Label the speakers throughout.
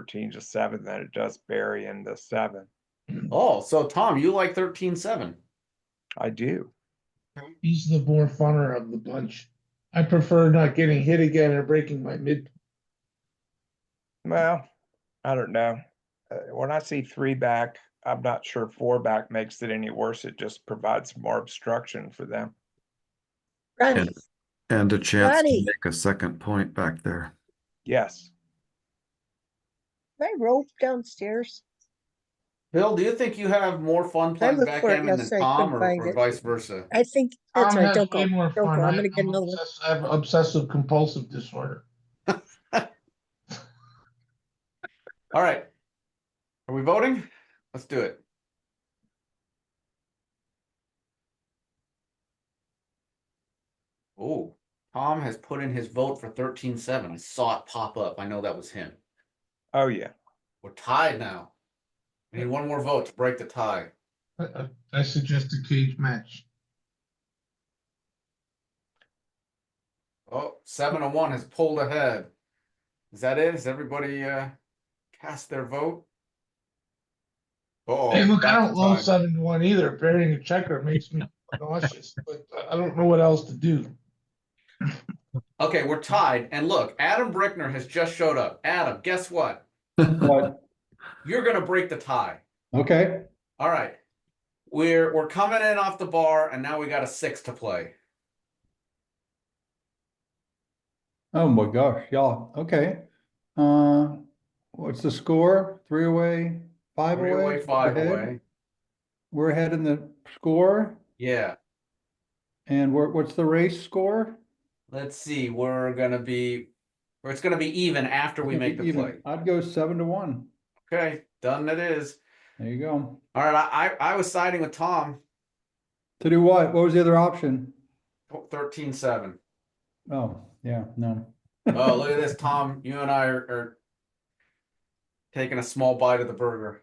Speaker 1: thirteen to seven than it does Barry and the seven.
Speaker 2: Oh, so Tom, you like thirteen seven.
Speaker 1: I do.
Speaker 3: He's the more funner of the bunch. I prefer not getting hit again or breaking my mid.
Speaker 1: Well, I don't know. Uh, when I see three back, I'm not sure four back makes it any worse. It just provides more obstruction for them.
Speaker 4: And,
Speaker 5: Right.
Speaker 4: and a chance to
Speaker 5: Buddy.
Speaker 4: make a second point back there.
Speaker 1: Yes,
Speaker 5: They rope downstairs.
Speaker 2: Bill, do you think you have more fun playing
Speaker 5: looked for it
Speaker 2: backgammon than
Speaker 5: yesterday,
Speaker 2: Tom
Speaker 5: couldn't
Speaker 2: or,
Speaker 5: find
Speaker 2: or
Speaker 5: it.
Speaker 2: vice versa?
Speaker 5: I think that's
Speaker 3: Tom
Speaker 5: right.
Speaker 3: has
Speaker 5: Don't go.
Speaker 3: way more
Speaker 5: Don't go.
Speaker 3: fun.
Speaker 5: I'm
Speaker 3: I-
Speaker 5: gonna get
Speaker 3: I'm
Speaker 5: another one.
Speaker 3: obsessed- I have obsessive compulsive disorder.
Speaker 2: All right. Are we voting? Let's do it. Oh, Tom has put in his vote for thirteen seven. I saw it pop up. I know that was him.
Speaker 1: oh yeah.
Speaker 2: We're tied now. We need one more vote to break the tie.
Speaker 3: I- I I suggest a cage match.
Speaker 2: Oh, seven and one has pulled ahead. Is that it? Has everybody uh cast their vote? Oh.
Speaker 3: Hey, look, I don't love seven to one either. Burying a checker makes me nauseous, but I- I don't know what else to do.
Speaker 2: Okay, we're tied. And look, Adam Brickner has just showed up. Adam, guess what?
Speaker 6: What?
Speaker 2: You're gonna break the tie.
Speaker 6: Okay,
Speaker 2: All right. We're we're coming in off the bar and now we got a six to play.
Speaker 6: oh my gosh, y'all, okay. Uh, what's the score? Three away, five away?
Speaker 2: Three away, five
Speaker 6: We're ahead?
Speaker 2: away.
Speaker 6: We're ahead in the score,
Speaker 2: Yeah.
Speaker 6: and we're, what's the race score?
Speaker 2: Let's see. We're gonna be or it's gonna be even after we
Speaker 6: Gonna
Speaker 2: make
Speaker 6: be
Speaker 2: the
Speaker 6: even.
Speaker 2: play.
Speaker 6: I'd go seven to one,
Speaker 2: Okay, done it is.
Speaker 6: there you go.
Speaker 2: All right, I, I I was siding with Tom
Speaker 6: To do what? What was the other option?
Speaker 2: thirteen seven.
Speaker 6: Oh, yeah, no.
Speaker 2: Oh, look at this, Tom. You and I are, are taking a small bite of the burger.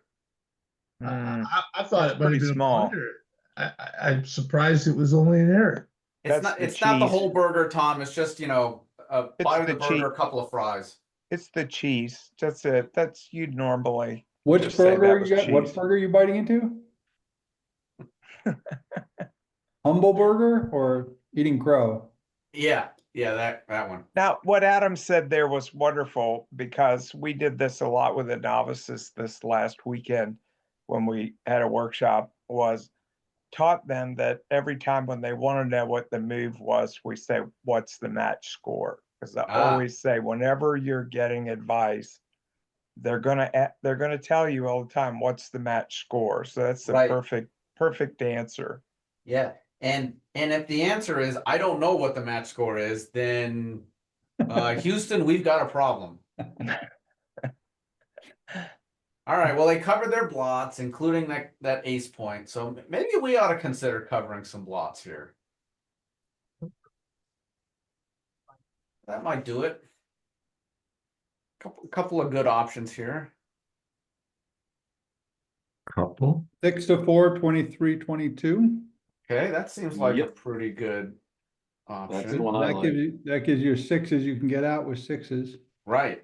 Speaker 3: I-
Speaker 1: Mm.
Speaker 3: I, I thought it
Speaker 1: Pretty
Speaker 3: might have been a
Speaker 1: small.
Speaker 3: blunder. I, I, I'm surprised it was only an error.
Speaker 2: It's
Speaker 1: That's
Speaker 2: not
Speaker 1: the
Speaker 2: it's not the
Speaker 1: cheese.
Speaker 2: whole burger, Tom. It's just, you know, a
Speaker 1: It's
Speaker 2: bite of
Speaker 1: the
Speaker 2: the burger, a
Speaker 1: cheese.
Speaker 2: couple of fries.
Speaker 1: It's the cheese. That's it. That's you'd normally.
Speaker 6: Which
Speaker 1: Just say that
Speaker 6: burger
Speaker 1: was
Speaker 6: you got,
Speaker 1: cheese.
Speaker 6: what burger you biting into? Humble burger or eating crow?
Speaker 2: Yeah, yeah, that that one.
Speaker 1: Now, what Adam said there was wonderful because we did this a lot with the novices this last weekend when we had a workshop was taught them that every time when they want to know what the move was, we say, what's the match score? Because I
Speaker 2: Ah.
Speaker 1: always say, whenever you're getting advice, they're gonna a- they're gonna tell you all the time what's the match score. So that's the
Speaker 2: Right.
Speaker 1: perfect perfect answer.
Speaker 2: Yeah. And and if the answer is I don't know what the match score is, then uh Houston, we've got a problem. All right, well, they covered their blots, including that that ace point. So m- maybe we ought to consider covering some blots here. That might do it. Couple couple of good options here.
Speaker 4: Couple.
Speaker 6: Six to four, twenty-three, twenty-two?
Speaker 2: Okay, that seems like a
Speaker 7: Yep.
Speaker 2: pretty good option.
Speaker 7: the one I
Speaker 6: That
Speaker 7: like.
Speaker 6: gives you, that gives you sixes, you can get out with sixes.
Speaker 2: Right.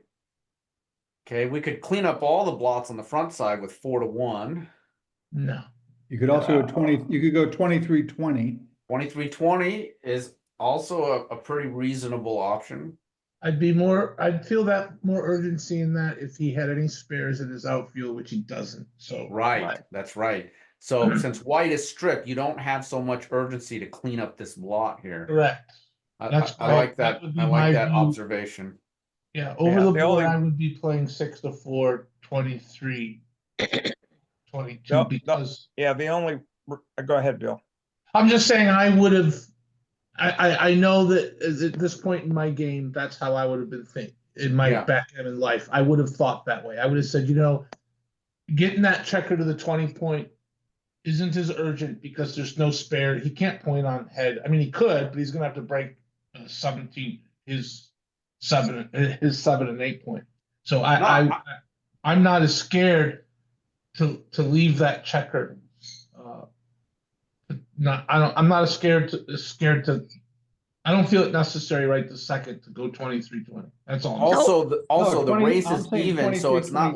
Speaker 2: Okay, we could clean up all the blots on the front side with four to one.
Speaker 3: No.
Speaker 6: You could also go
Speaker 2: Yeah.
Speaker 6: twenty, you could go twenty-three, twenty.
Speaker 2: Twenty-three twenty is also a, a pretty reasonable option.
Speaker 3: I'd be more, I'd feel that more urgency in that if he had any spares in his outfield, which he doesn't, so.
Speaker 2: Right,
Speaker 1: Right.
Speaker 2: that's right. So since white is stripped, you don't have so much urgency to clean up this blot here.
Speaker 3: Correct,
Speaker 2: I- I,
Speaker 3: That's
Speaker 2: I
Speaker 3: right.
Speaker 2: like
Speaker 3: That
Speaker 2: that,
Speaker 3: would be
Speaker 2: I
Speaker 3: my
Speaker 2: like that
Speaker 3: view.
Speaker 2: observation.
Speaker 3: yeah,
Speaker 1: Yeah,
Speaker 3: over the
Speaker 1: the only-
Speaker 3: board, I would be playing six to four, twenty-three. Twenty-two,
Speaker 1: Nope, nope.
Speaker 3: because,
Speaker 1: Yeah, the only r- go ahead, Bill.
Speaker 3: I'm just saying I would have, I, I, I know that at- at this point in my game, that's how I would have been thinking. In my
Speaker 2: Yeah.
Speaker 3: backgammon life, I would have thought that way, I would have said, you know, getting that checker to the twenty point isn't as urgent because there's no spare. He can't point on head. I mean, he could, but he's gonna have to break uh, seventeen, his seven, uh, his seven and eight point. So I,
Speaker 2: No,
Speaker 3: I,
Speaker 2: I-
Speaker 3: I'm not as scared to to leave that checker. Uh, not, I don't. I'm not as scared to as scared to. I don't feel it necessary right this second to go twenty three twenty. That's all. I'm saying.
Speaker 2: Also, the- also the
Speaker 6: No, 20
Speaker 2: race
Speaker 6: I'm
Speaker 2: is
Speaker 6: saying
Speaker 2: even, so
Speaker 6: 23,
Speaker 2: it's not